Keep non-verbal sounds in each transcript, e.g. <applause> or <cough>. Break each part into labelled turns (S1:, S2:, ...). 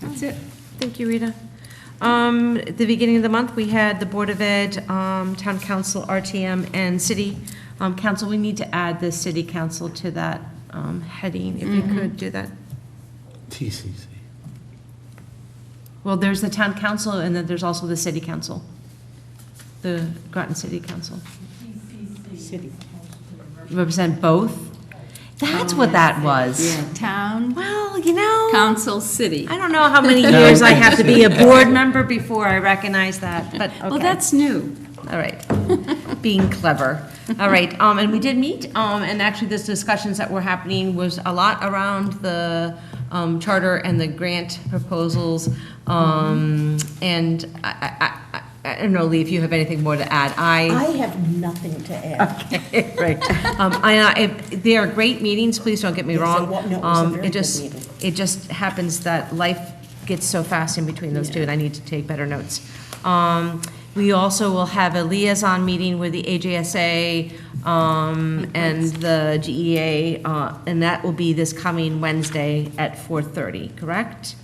S1: That's it. Thank you, Rita. Um, At the beginning of the month, we had the Board of Ed, um, Town Council, RTM, and City um, Council. We need to add the City Council to that um, heading, if you could do that.
S2: TCC.
S1: Well, there's the Town Council, and then there's also the City Council, the Groton City Council.
S3: City.
S1: Represent both? That's what that was.
S3: Yeah, town,
S1: Well, you know.
S3: council, city.
S1: I don't know how
S3: <laughs>
S1: many years I have to be a board member before I recognize that, but, okay.
S3: Well, that's new.
S1: All right. Being clever. All right, um, and we did meet, um, and actually this discussions that were happening was a lot around the, um, charter and the grant proposals. Um, and I, I, I, I don't know, Lee, if you have anything more to add. I,
S4: I have nothing to
S1: <laughs>
S4: add.
S1: right. Um, I, I- if, they are great meetings, please don't get me
S4: Yes, I
S1: wrong.
S4: wa- no, it was a
S1: Um,
S4: very
S1: It
S4: good
S1: just,
S4: meeting.
S1: it just happens that life gets so fast in between those two, and I need to take better notes. Um, we also will have a liaison meeting with the AJSA, um, and the GEA, uh, and that will be this coming Wednesday at four-thirty, correct?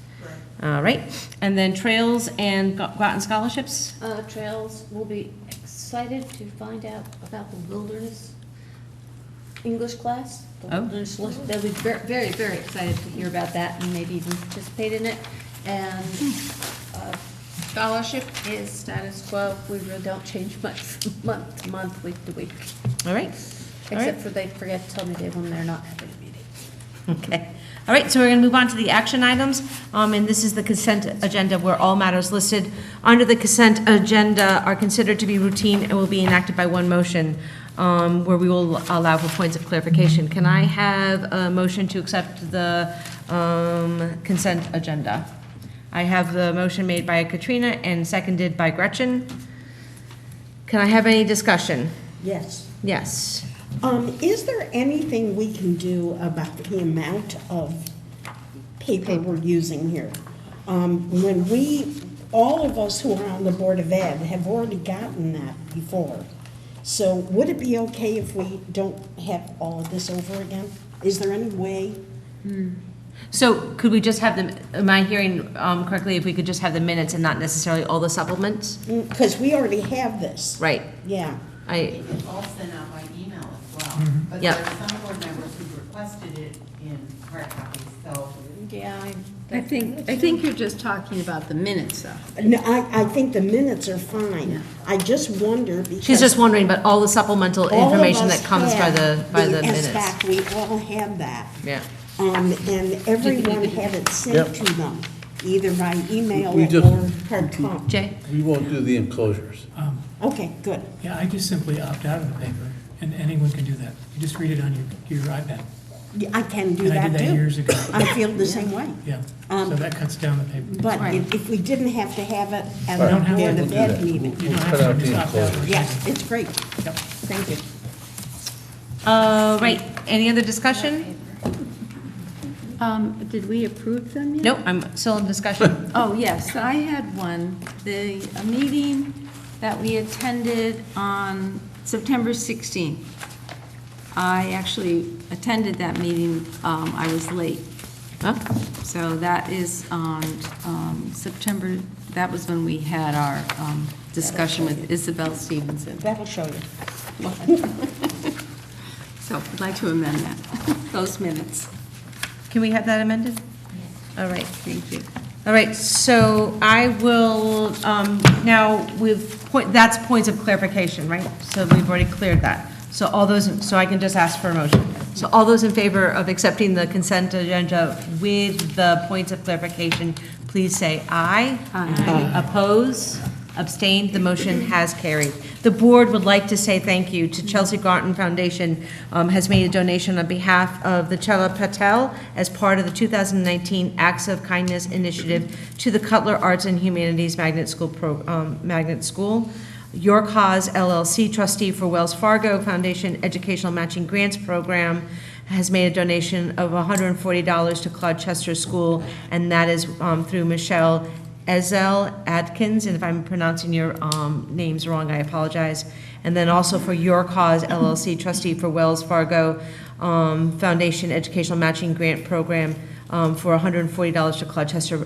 S1: All right, and then trails and Gro- Groton scholarships?
S5: Uh, Trails will be excited to find out about the wilderness English class. the
S1: Oh.
S5: wilderness li- They'll be ver- very, very excited to hear about that and maybe even participate in it. And uh, scholarship is status quo. We really don't change much <laughs> from month to month, week to week.
S1: All right, all right.
S5: Except for they forget to tell me they, when they're not having a meeting.
S1: Okay. All right, so we're going to move on to the action items, Um, and this is the consent agenda where all matters listed under the consent agenda are considered to be routine and will be enacted by one motion, um, where we will allow for points of clarification. Can I have a motion to accept the um, consent agenda? I have the motion made by Katrina and seconded by Gretchen. Can I have any discussion?
S4: Yes.
S1: Yes.
S4: Um, is there anything we can do about the amount of paper we're using here? Um, when we, all of us who are on the Board of Ed have already gotten that before. So would it be okay if we don't have all of this over again? Is there any way?
S1: So could we just have the, am I hearing um, correctly, if we could just have the minutes and not necessarily all the supplements?
S4: Because Mm, we already have this.
S1: Right,
S4: Yeah.
S1: I,
S6: It was all sent out by email as well. But there
S1: Yep.
S6: are some board members who requested it in hard copy, so
S5: Yeah,
S3: I think, I think you're just talking about the minutes, though.
S4: No, I, I think the minutes are fine. I just wonder because.
S1: she's just wondering, but all the supplemental
S4: all of
S1: information
S4: us
S1: that comes by
S4: had
S1: the, by the
S4: In
S1: minutes.
S4: fact, we all had that.
S1: Yeah.
S4: Um, and everyone had it sent
S2: Yep.
S4: to them, either by email
S2: We just-
S4: or hard copy.
S1: Jay?
S2: We won't do the enclosures.
S7: Um,
S4: Okay, good.
S7: Yeah, I just simply opt out of the paper, and anyone can do that. You just read it on your, your iPad.
S4: Yeah, I can do
S7: And I
S4: that
S7: did that
S4: too.
S7: years ago,
S4: I feel the same way.
S7: yeah.
S4: Um,
S7: So that cuts down the paper.
S4: But if, if we didn't have to have it at
S7: You
S4: the
S7: don't have to
S4: Board
S7: do
S4: of
S7: that.
S4: Ed meeting.
S7: You don't have
S2: Cut
S7: to
S2: out the
S7: just opt out.
S2: enclosures.
S4: Yes, it's great.
S7: Yep.
S4: Thank you.
S1: Uh, right, any other discussion?
S3: Um, Did we approve them yet?
S1: Nope, I'm still in discussion.
S3: Oh, yes, I had one. The, a meeting that we attended on September 16th. I actually attended that meeting, um, I was late. So that is on um, September, that was when we had our um, discussion with Isabel Stevenson.
S4: That'll show you.
S3: <laughs> So I'd like to amend
S4: <laughs>
S3: that, those minutes.
S1: Can we have that amended? All right.
S3: Thank you.
S1: All right, so I will, um, now, we've, point- that's points of clarification, right? So we've already cleared that. So all those, so I can just ask for a motion. So all those in favor of accepting the consent agenda with the points of clarification, please say aye. Aye. Oppose, abstain, the motion has carried. The board would like to say thank you to Chelsea Garton Foundation, um, has made a donation on behalf of the Chela Patel as part of the 2019 Acts of Kindness Initiative to the Cutler Arts and Humanities Magnet School, Pro- um, Magnet School. Your Cause LLC trustee for Wells Fargo Foundation Educational Matching Grants Program has made a donation of $140 to Claude Chester School, and that is um, through Michelle Ezel Atkins, and if I'm pronouncing your um, names wrong, I apologize. And then also for Your Cause LLC trustee for Wells Fargo um, Foundation Educational Matching Grant Program um, for $140 to Claude Chester